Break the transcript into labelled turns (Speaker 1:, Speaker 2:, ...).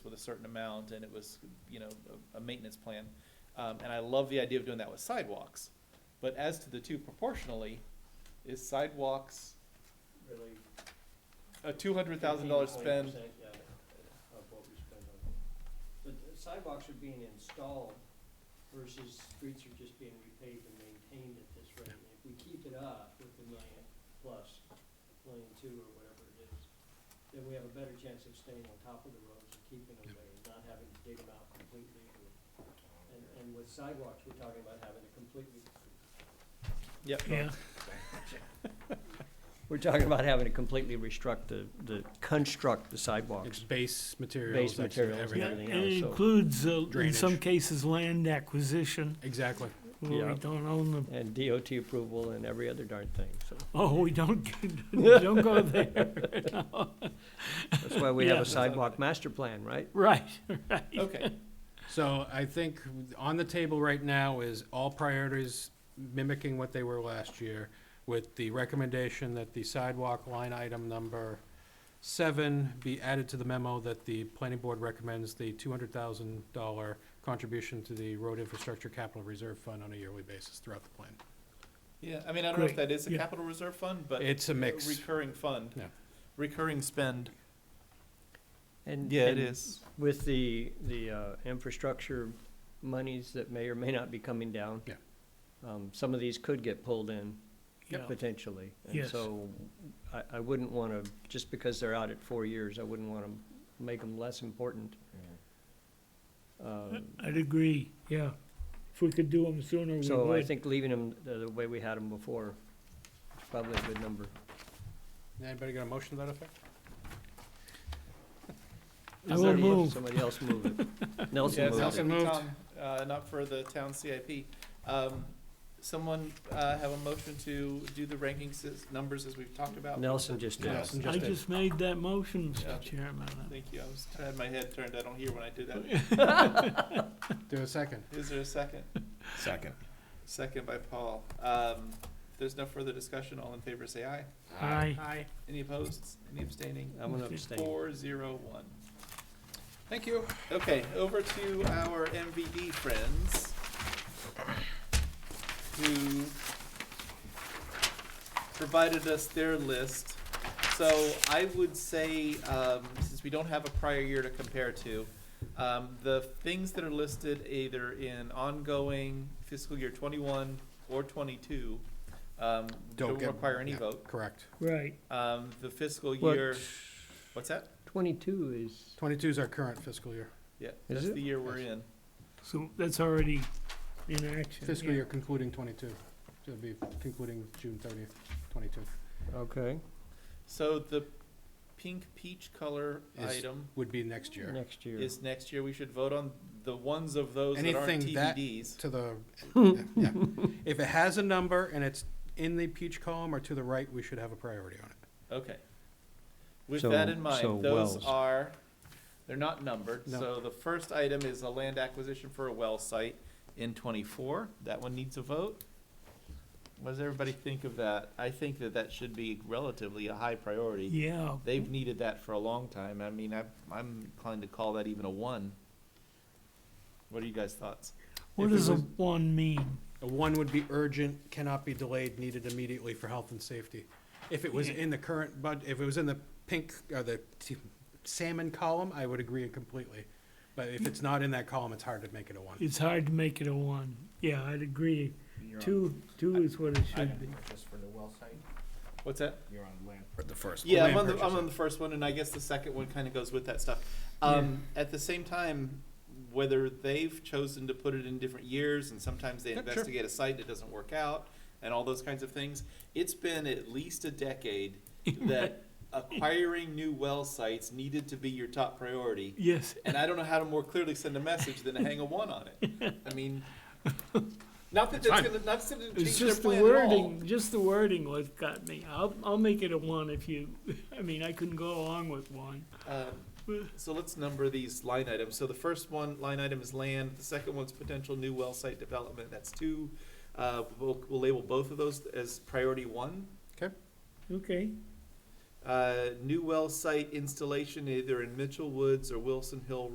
Speaker 1: certain amount, and it was, you know, a, a maintenance plan. Um, and I love the idea of doing that with sidewalks, but as to the two proportionally, is sidewalks
Speaker 2: really.
Speaker 1: a two hundred thousand dollar
Speaker 2: 15 to
Speaker 1: spend?
Speaker 2: 20%, yeah, Of what we spend on. But the sidewalks are being installed versus streets are just being repaved and maintained at this rate. And If we keep it up with the million plus, million two or whatever it is, then we have a better chance of staying on top of the roads and keeping them away, and not having to dig them out completely. and- And, and with sidewalks, we're talking about having to completely
Speaker 1: Yep.
Speaker 3: Yeah,
Speaker 4: We're talking about having to completely restruct the, the, construct the
Speaker 5: It's
Speaker 4: sidewalks.
Speaker 5: base materials,
Speaker 4: Base
Speaker 5: that's
Speaker 4: materials and
Speaker 3: yeah,
Speaker 5: everything.
Speaker 4: everything
Speaker 3: it
Speaker 4: else, so-
Speaker 3: includes, uh, in
Speaker 5: Drainage.
Speaker 3: some cases, land acquisition,
Speaker 5: Exactly.
Speaker 3: where
Speaker 4: Yeah.
Speaker 3: we don't own them.
Speaker 4: And DOT approval and every other darn thing, so
Speaker 3: Oh, we don't, don't go there.
Speaker 4: that's why we have
Speaker 3: Yeah.
Speaker 4: a sidewalk master plan, right?
Speaker 3: Right,
Speaker 1: Okay,
Speaker 5: So I think on the table right now is all priorities mimicking what they were last year with the recommendation that the sidewalk line item number seven be added to the memo that the planning board recommends the two hundred thousand dollar contribution to the road infrastructure capital reserve fund on a yearly basis throughout the plan.
Speaker 1: yeah, I mean, I don't know if
Speaker 3: Great,
Speaker 1: that is a
Speaker 3: yeah.
Speaker 1: capital reserve fund, but.
Speaker 5: It's a mix.
Speaker 1: Recurring fund.
Speaker 5: Yeah.
Speaker 1: Recurring spend.
Speaker 4: And-
Speaker 1: Yeah, it
Speaker 4: and
Speaker 1: is.
Speaker 4: With the, the, uh, infrastructure monies that may or may not be coming down.
Speaker 5: Yeah.
Speaker 4: Um, some of these could get pulled in
Speaker 3: Yeah.
Speaker 4: potentially. And
Speaker 3: Yes.
Speaker 4: so I, I wouldn't wanna, just because they're out at four years, I wouldn't wanna make them less important. Um,
Speaker 3: I'd agree, yeah. If we could do them sooner, we would.
Speaker 4: So I think leaving them the the way we had them before is probably a good number.
Speaker 5: Anybody got a motion to that effect?
Speaker 3: I
Speaker 4: Is
Speaker 3: will
Speaker 4: there-
Speaker 3: move.
Speaker 4: Somebody else move it. Nelson
Speaker 1: Yeah,
Speaker 4: moved
Speaker 5: Nelson
Speaker 4: it.
Speaker 5: moved.
Speaker 1: Tom, uh, not for the town CIP. Um, someone, uh, have a motion to do the ranking sys- numbers as we've talked about?
Speaker 4: Nelson just did.
Speaker 5: Nelson
Speaker 3: I
Speaker 5: did.
Speaker 3: just made that motion,
Speaker 1: Yeah.
Speaker 3: Mr. Chairman.
Speaker 1: Thank you, I was, I had my head turned, I don't hear when I do that.
Speaker 5: Do a second.
Speaker 1: Is there a second?
Speaker 6: Second.
Speaker 1: Second by Paul. Um, if there's no further discussion, all in favor say aye.
Speaker 3: Aye.
Speaker 1: Aye. Any opposed, any abstaining?
Speaker 4: I'm gonna abstain.
Speaker 1: Four, zero, one. Thank you. Okay, over to our MVD friends. Who provided us their list. So I would say, um, since we don't have a prior year to compare to, um, the things that are listed either in ongoing fiscal year twenty-one or twenty-two, um,
Speaker 5: Don't
Speaker 1: don't
Speaker 5: get-
Speaker 1: require any
Speaker 5: yeah.
Speaker 1: vote.
Speaker 5: Correct.
Speaker 3: Right,
Speaker 1: Um, the fiscal
Speaker 4: But
Speaker 1: year, what's that?
Speaker 4: Twenty-two is,
Speaker 5: Twenty-two is our current fiscal year,
Speaker 1: Yeah,
Speaker 4: Is
Speaker 1: that's
Speaker 4: it?
Speaker 1: the year we're in.
Speaker 3: so that's already in action.
Speaker 5: fiscal
Speaker 3: yeah.
Speaker 5: year concluding twenty-two. It'll be concluding June thirtieth, twenty-two.
Speaker 4: okay,
Speaker 1: So the pink peach color
Speaker 5: Is-
Speaker 1: item
Speaker 5: Would be next year.
Speaker 4: next year.
Speaker 1: is next year. We should vote on the ones of those that aren't
Speaker 5: Anything that-
Speaker 1: TBDs.
Speaker 5: to the, yeah. If it has a number and it's in the peach column or to the right, we should have a priority on it.
Speaker 1: Okay. With
Speaker 4: So-
Speaker 1: that in mind,
Speaker 4: so
Speaker 1: those
Speaker 4: wells.
Speaker 1: are they're not numbered.
Speaker 5: No.
Speaker 1: So the first item is a land acquisition for a well site in 24. That one needs a vote. What does everybody think of that? I think that that should be relatively a high priority.
Speaker 3: Yeah,
Speaker 1: They've needed that for a long time. I mean, I, I'm inclined to call that even a one. What are you guys' thoughts?
Speaker 3: what
Speaker 5: If it
Speaker 3: does a
Speaker 5: was-
Speaker 3: one mean?
Speaker 5: A one would be urgent, cannot be delayed, needed immediately for health and safety. If it was in the current bud, if it was in the pink or the t- salmon column, I would agree completely. But if it's not in that column, it's hard to make it a one.
Speaker 3: It's hard to make it a one. Yeah, I'd agree. Two, two is what it should be.
Speaker 6: Just for the well site,
Speaker 1: What's that?
Speaker 6: you're on land. For the first.
Speaker 1: Yeah, I'm
Speaker 5: land
Speaker 1: on the I'm
Speaker 5: purchase.
Speaker 1: on the first one, and I guess the second one kind of goes with that stuff. Um, At the same time, whether they've chosen to put it in different years, and sometimes they
Speaker 5: Yep, sure.
Speaker 1: investigate a site that doesn't work out, and all those kinds of things. It's been at least a decade that acquiring new well sites needed to be your top priority.
Speaker 3: Yes,
Speaker 1: And I don't know how to more clearly send a message than to hang a one on it. I mean, not that that's gonna, not that it'll change
Speaker 3: it's
Speaker 1: their
Speaker 3: just the
Speaker 1: plan at all.
Speaker 3: wording, just the wording what got me. I'll, I'll make it a one if you, I mean, I couldn't go along with one.
Speaker 1: Um, So let's number these line items. So the first one, line item is land, the second one's potential new well site development, that's two. Uh, we'll, we'll label both of those as priority one.
Speaker 3: Okay,
Speaker 1: Uh, new well site installation either in Mitchell Woods or Wilson Hill